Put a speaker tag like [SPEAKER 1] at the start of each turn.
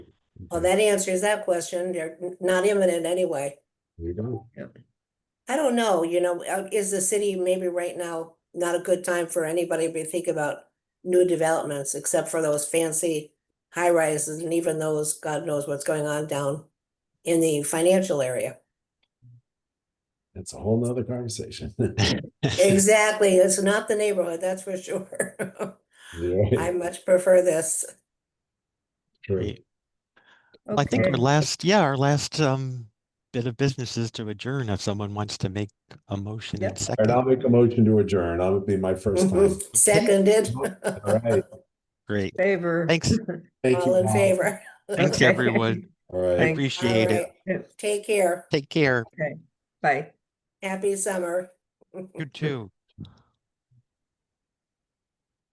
[SPEAKER 1] Well, that answers that question. They're n- not imminent anyway.
[SPEAKER 2] We don't.
[SPEAKER 1] I don't know, you know, uh, is the city maybe right now not a good time for anybody to be thinking about new developments except for those fancy high rises and even those, God knows what's going on down in the financial area.
[SPEAKER 2] That's a whole nother conversation.
[SPEAKER 1] Exactly. It's not the neighborhood, that's for sure.
[SPEAKER 2] Yeah,
[SPEAKER 1] I much prefer this.
[SPEAKER 2] true.
[SPEAKER 3] Great. I think our
[SPEAKER 4] Okay.
[SPEAKER 3] last, yeah, our last um bit of business is to adjourn if someone wants to make a motion
[SPEAKER 4] Yep.
[SPEAKER 3] and
[SPEAKER 2] And I'll
[SPEAKER 3] second.
[SPEAKER 2] make a motion to adjourn. That'll be my first time.
[SPEAKER 1] Mhm. Seconded.
[SPEAKER 2] All right.
[SPEAKER 3] Great.
[SPEAKER 4] Favor.
[SPEAKER 3] Thanks.
[SPEAKER 2] Thank you.
[SPEAKER 1] All in
[SPEAKER 2] all.
[SPEAKER 1] favor.
[SPEAKER 3] Thanks,
[SPEAKER 4] Okay.
[SPEAKER 3] everyone.
[SPEAKER 2] All
[SPEAKER 3] I
[SPEAKER 2] right.
[SPEAKER 4] Thank-
[SPEAKER 3] appreciate it.
[SPEAKER 1] Alright, Take care.
[SPEAKER 3] Take care.
[SPEAKER 4] Bye.
[SPEAKER 1] Happy summer.
[SPEAKER 3] You too.